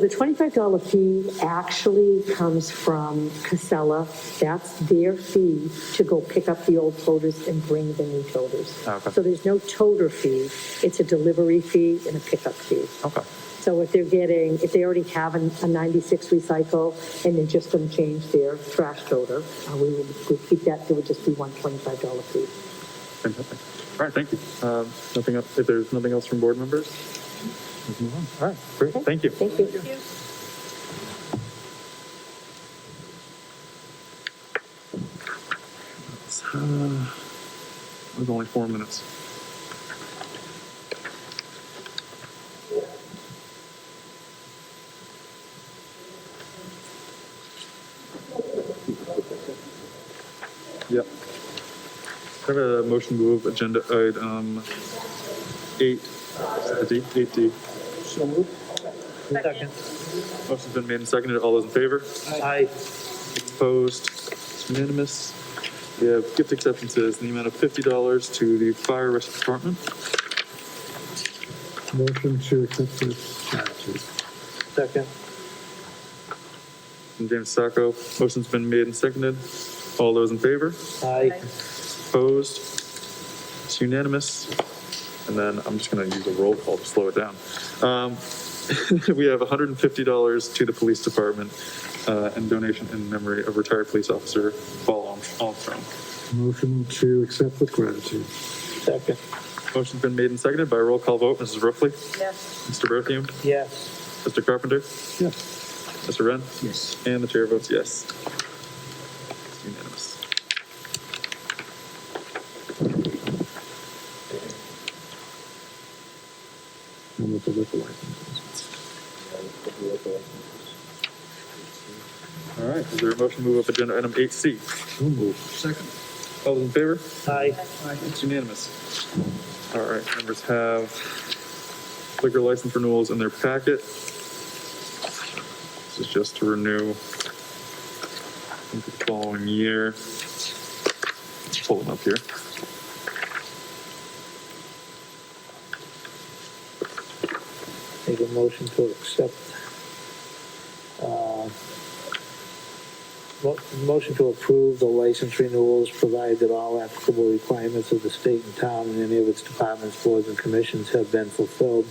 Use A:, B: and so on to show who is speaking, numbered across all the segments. A: The $25 fee actually comes from Casella. That's their fee to go pick up the old toters and bring the new toters.
B: Okay.
A: So there's no toter fee. It's a delivery fee and a pickup fee.
B: Okay.
A: So if they're getting, if they already have an- a 96 recycle and they're just going to change their trash toter, uh, we will we'll keep that, there would just be one $25 fee.
B: Fantastic. All right, thank you. Um, Nothing else, if there's nothing else from board members? let's move on. All right, great, thank you.
A: Thank you.
B: It's, uh, It was only four minutes. Yep. I have a motion to move agenda item eight, is it D? Eight D.
C: Second.
B: Motion's been made and seconded. All those in favor?
C: Aye.
B: Opposed? It's unanimous. We have gift acceptances in the amount of fifty dollars to the fire rescue department.
D: Motion to accept this gratitude.
C: Second.
B: From James Sacco. Motion's been made and seconded. All those in favor?
C: Aye.
B: Opposed? It's unanimous. And then I'm just gonna use a roll call to slow it down. Um, we have hundred and fifty dollars to the police department, uh, and donation in memory of retired police officer Paul Armstrong.
D: Motion to accept with gratitude.
C: Second.
B: Motion's been made and seconded by a roll call vote. Mrs. Ruffey?
C: Yes.
B: Mr. Bertheum?
C: Yes.
B: Mr. Carpenter?
D: Yes.
B: Mr. Wren?
D: Yes.
B: And the chair votes yes. It's Unanimous.
D: And with the liquor license.
B: All right, is there a motion to move up agenda item eight C?
D: So moved. Second.
B: All those in favor?
C: Aye.
B: It's unanimous. All right, members have liquor license renewals in their packet. This is just to renew for the following year. Pull them up here.
C: Make a motion to accept. uh, mo- Motion to approve the license renewals, provided that all applicable requirements of the state and town and any of its departments, boards, and commissions have been fulfilled.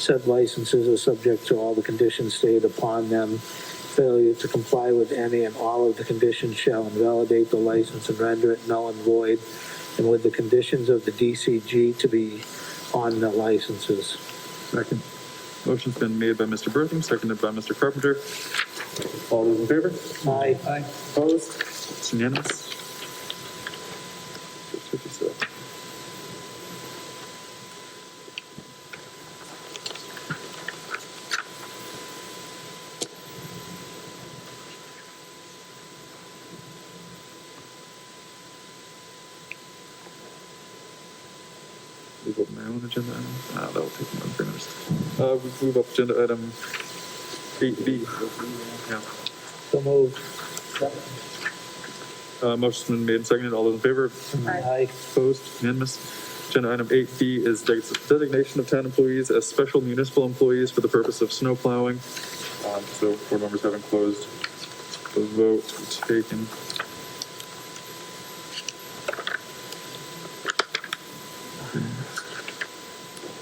C: Said licenses are subject to all the conditions stated upon them. Failure to comply with any and all of the conditions shall invalidate the license and render it null and void, and with the conditions of the DCG to be on the licenses.
D: Second.
B: Motion's been made by Mr. Bertham, seconded by Mr. Carpenter. All those in favor?
C: Aye. Aye.
B: Opposed? It's unanimous. Six fifty-seven. Move up my own agenda item. Ah, that'll take me about three minutes. Uh, we move up agenda item eight B. Yeah.
C: So moved.
B: Uh, motion's been made and seconded. All those in favor?
C: Aye.
B: Opposed? Unanimous. Agenda item eight D is de- designation of town employees as special municipal employees for the purpose of snow plowing. Um, so board members haven't closed the vote taken.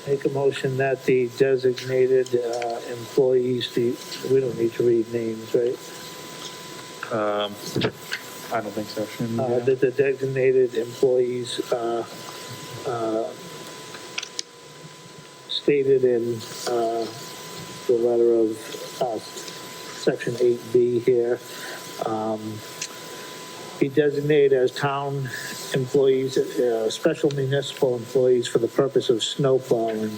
C: Make a motion that the designated uh, employees, the, we don't need to read names, right?
B: Um, I don't think so. Shannon,
C: Uh,
B: yeah.
C: That the designated employees uh, uh, stated in uh, the letter of uh, section 8B here, um, be designated as town employees, uh, special municipal employees for the purpose of snow plowing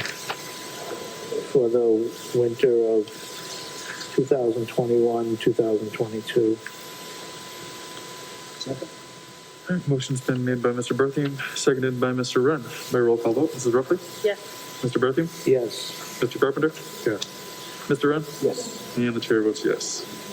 C: for the winter of 2021, 2022.
B: All right, Motion's been made by Mr. Bertheum, seconded by Mr. Wren. By roll call vote, Mrs. Ruffey?
A: Yes.
B: Mr. Bertheum?
C: Yes.
B: Mr. Carpenter?
D: Yeah.
B: Mr. Wren?
C: Yes.
B: And the chair votes yes.